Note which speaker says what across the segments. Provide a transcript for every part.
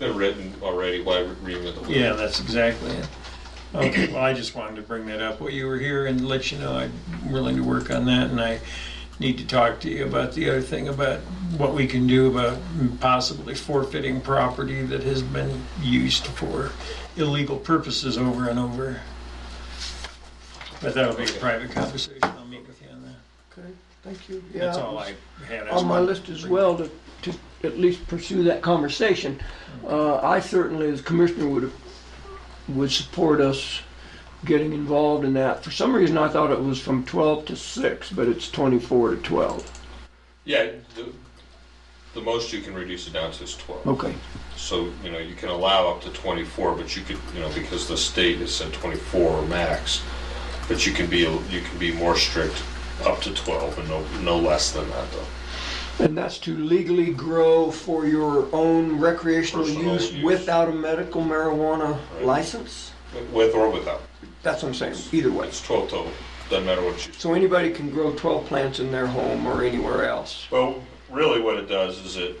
Speaker 1: They're written already, why reinvent the wheel?
Speaker 2: Yeah, that's exactly it. Okay, well, I just wanted to bring that up while you were here and let you know I'm willing to work on that and I need to talk to you about the other thing about what we can do about possibly forfeiting property that has been used for illegal purposes over and over. But that'll be a private conversation. I'll meet with you on that.
Speaker 3: Okay, thank you. Yeah,
Speaker 2: That's
Speaker 3: it
Speaker 2: all
Speaker 3: was
Speaker 2: I had. I just
Speaker 3: On my
Speaker 2: wanted
Speaker 3: list
Speaker 2: to
Speaker 3: as
Speaker 2: bring-
Speaker 3: well to, to at least pursue that conversation. Uh, I certainly, as commissioner, would, would support us getting involved in that. For some reason, I thought it was from twelve to six, but it's twenty-four to twelve.
Speaker 1: Yeah, the, the most you can reduce it down to is twelve.
Speaker 3: Okay,
Speaker 1: So, you know, you can allow up to twenty-four, but you could, you know, because the state has said twenty-four max, but you can be, you can be more strict up to twelve and no, no less than that though.
Speaker 3: and that's to legally grow for your own recreational
Speaker 1: Personal
Speaker 3: use
Speaker 1: use.
Speaker 3: without a medical marijuana
Speaker 1: Right.
Speaker 3: license?
Speaker 1: With or without,
Speaker 3: That's what I'm saying, either way.
Speaker 1: it's twelve total, doesn't matter what you.
Speaker 3: So anybody can grow twelve plants in their home or anywhere else.
Speaker 1: Well, really what it does is it,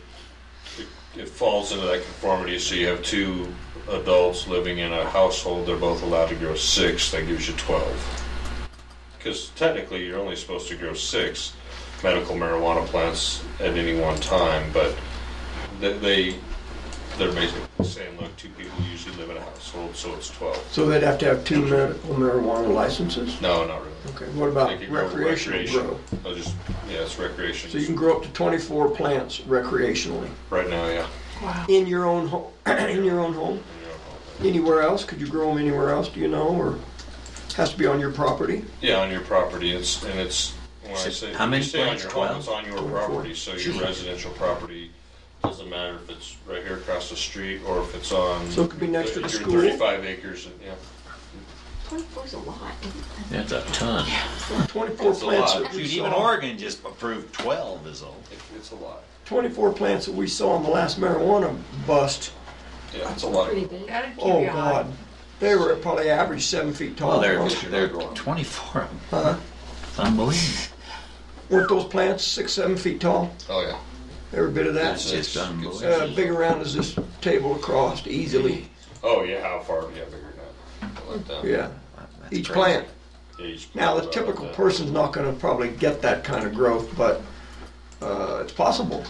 Speaker 1: it- it falls into that conformity, so you have two adults living in a household, they're both allowed to grow six, that gives you twelve. Because technically, you're only supposed to grow six medical marijuana plants at any one time, but th- they, they're basically saying, look, two people usually live in a household, so it's twelve.
Speaker 3: So they'd have to have two medical marijuana licenses?
Speaker 1: No, not really.
Speaker 3: Okay, what
Speaker 1: They
Speaker 3: about
Speaker 1: could grow
Speaker 3: recreational
Speaker 1: recreation.
Speaker 3: grow?
Speaker 1: I'll just, yeah, it's
Speaker 3: So you
Speaker 1: recreation,
Speaker 3: can grow up to 24 plants recreationally
Speaker 1: right now, yeah.
Speaker 3: in your own home, in your own home?
Speaker 1: in your home.
Speaker 3: Anywhere else? Could you grow them anywhere else, do you know, or has to be on your property?
Speaker 1: Yeah, on your property, it's, and it's, when I
Speaker 4: So
Speaker 1: say,
Speaker 4: how
Speaker 1: when you
Speaker 4: many
Speaker 1: say on
Speaker 4: plants?
Speaker 1: your home, it's on your
Speaker 3: Twenty-four.
Speaker 1: property, so your residential property, doesn't matter if it's right here across the street, or if it's on.
Speaker 3: So it could be next to the
Speaker 1: your
Speaker 3: school?
Speaker 1: Thirty-five acres, and, yeah.
Speaker 5: 24 is a lot.
Speaker 4: That's a ton.
Speaker 3: 24
Speaker 1: That's a
Speaker 3: plants
Speaker 1: lot.
Speaker 3: that we
Speaker 4: Even
Speaker 3: saw,
Speaker 4: Oregon just approved 12 is all.
Speaker 1: It- It's a lot,
Speaker 3: 24 plants that we saw in the last marijuana bust.
Speaker 1: yeah, it's a lot.
Speaker 5: Pretty big.
Speaker 6: That'd keep
Speaker 3: Oh,
Speaker 6: you on.
Speaker 3: God. They were probably average seven feet tall.
Speaker 4: Well, Oh,
Speaker 5: Oh,
Speaker 4: they're,
Speaker 3: weren't
Speaker 4: they're 24 of them.
Speaker 5: Uh-huh.
Speaker 3: Huh?
Speaker 4: It's unbelievable.
Speaker 3: Weren't those plants six, seven feet tall?
Speaker 1: Oh, yeah.
Speaker 3: Every bit of
Speaker 1: It's-
Speaker 3: that?
Speaker 4: That's just
Speaker 1: it's-
Speaker 4: unbelievable.
Speaker 3: Uh, big around as this table across easily,
Speaker 1: Oh, yeah, how far, yeah, bigger than that. Like that.
Speaker 3: yeah.
Speaker 4: That's
Speaker 3: Each
Speaker 4: crazy.
Speaker 3: plant.
Speaker 1: Yeah, you just-
Speaker 3: Now, the typical person's not gonna probably get that kind of growth, but, uh, it's possible.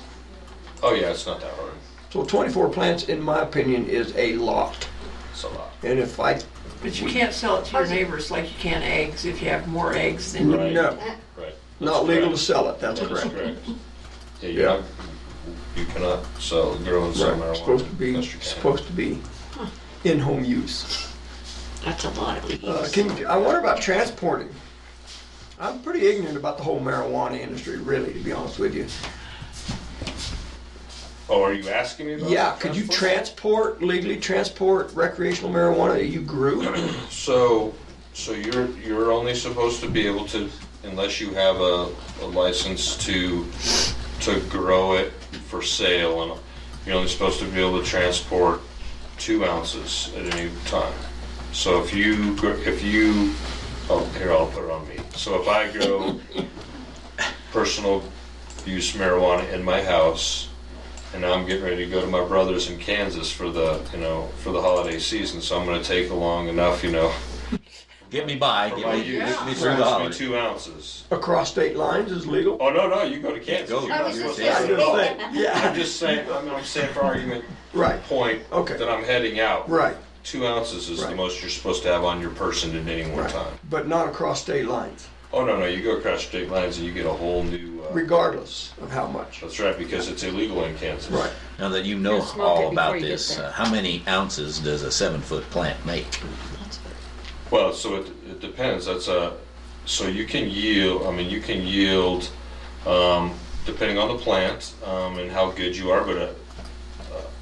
Speaker 1: Oh, yeah, it's not that hard,
Speaker 3: So twenty-four plants, in my opinion, is a lot.
Speaker 1: it's a lot.
Speaker 3: And if I,
Speaker 6: But you can't sell it to your neighbors like you can eggs, if you have more eggs than you.
Speaker 1: Right.
Speaker 3: no,
Speaker 1: Right.
Speaker 3: not
Speaker 1: That's
Speaker 3: legal to
Speaker 1: correct.
Speaker 3: sell it, that's
Speaker 1: That is
Speaker 3: correct.
Speaker 1: correct. Yeah, you're
Speaker 3: Yeah.
Speaker 1: not, you cannot sell, grow and sell
Speaker 3: Right,
Speaker 1: marijuana.
Speaker 3: it's supposed to be,
Speaker 1: Yes, you can.
Speaker 3: supposed to be in-home use.
Speaker 5: That's a lot of
Speaker 3: Uh, can, you- I wonder about transporting. I'm pretty ignorant about the whole marijuana industry, really, to be honest with you.
Speaker 1: Oh, are you asking me about?
Speaker 3: Yeah, could you
Speaker 1: transport?
Speaker 3: transport, legally transport recreational marijuana that you grew?
Speaker 1: So, so you're, you're only supposed to be able to, unless you have a, a license to, to grow it for sale, and you're only supposed to be able to transport two ounces at any time. So if you, gr- if you, oh, here, I'll put it on me. So if I grow personal use marijuana in my house, and now I'm getting ready to go to my brother's in Kansas for the, you know, for the holiday season, so I'm gonna take along enough, you know,
Speaker 4: Get me by.
Speaker 1: for
Speaker 4: Get
Speaker 1: my
Speaker 4: me,
Speaker 1: use.
Speaker 4: get me
Speaker 1: It's
Speaker 4: through the
Speaker 1: supposed
Speaker 4: holidays.
Speaker 1: to be two ounces.
Speaker 3: Across state lines is legal?
Speaker 1: Oh, no, no, you go to Kansas.
Speaker 4: go.
Speaker 1: You're
Speaker 5: I
Speaker 1: not
Speaker 5: was just
Speaker 1: supposed to-
Speaker 3: Yeah, I was gonna say,
Speaker 1: I'm
Speaker 3: yeah,
Speaker 1: just saying, I mean, I'm saying for argument
Speaker 3: right,
Speaker 1: point
Speaker 3: Okay.
Speaker 1: that I'm heading out.
Speaker 3: right,
Speaker 1: Two ounces is the
Speaker 3: Right.
Speaker 1: most you're supposed to have on your person at any one
Speaker 3: right.
Speaker 1: time.
Speaker 3: But not across state lines,
Speaker 1: Oh, no, no, you go across state lines and you get a whole new, uh,
Speaker 3: regardless of how much.
Speaker 1: that's right, because it's illegal in Kansas.
Speaker 3: Right.
Speaker 4: Now that you know
Speaker 5: Yeah, smoke it
Speaker 4: all
Speaker 5: before
Speaker 4: about
Speaker 5: you get
Speaker 4: this,
Speaker 5: there.
Speaker 4: uh, how many ounces does a seven foot plant make?
Speaker 1: Well, so it, it depends. That's a, so you can yield, I mean, you can yield, um, depending on the plant, um, and how good you are, but a,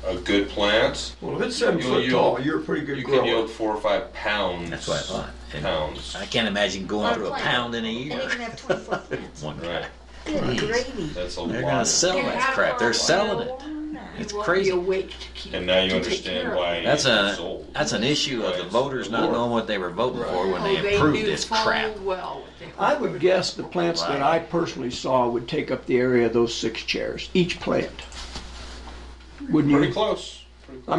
Speaker 1: a a good plant,
Speaker 3: Well, if it's seven
Speaker 1: You'll
Speaker 3: foot
Speaker 1: yield-
Speaker 3: tall, you're a pretty good
Speaker 1: you can
Speaker 3: grower.
Speaker 1: yield four or five pounds.
Speaker 4: That's what I thought. And
Speaker 1: Pounds.
Speaker 4: I can't imagine going
Speaker 5: On a
Speaker 4: through a
Speaker 5: plant.
Speaker 4: pound in a
Speaker 5: And you
Speaker 4: year.
Speaker 5: can have 24 plants.
Speaker 4: One
Speaker 1: Right,
Speaker 4: guy.
Speaker 5: Good gravy.
Speaker 1: that's a
Speaker 4: They're gonna
Speaker 1: lot.
Speaker 4: sell that crap. They're selling it. It's crazy.
Speaker 6: You wait to keep.
Speaker 1: And now you
Speaker 6: to take care
Speaker 1: understand
Speaker 6: of
Speaker 1: why.
Speaker 6: it.
Speaker 4: That's
Speaker 1: it's
Speaker 4: a
Speaker 1: sold.
Speaker 4: that's an issue of the voters not knowing what they were voting for when
Speaker 6: Oh,
Speaker 4: they approved
Speaker 6: knew
Speaker 4: this
Speaker 6: full
Speaker 4: crap.
Speaker 6: well what they
Speaker 3: I
Speaker 6: were
Speaker 3: would guess the plants that I personally saw would take up the area of those six chairs, each plant. Wouldn't
Speaker 1: Pretty
Speaker 3: you?
Speaker 1: close. Pretty close.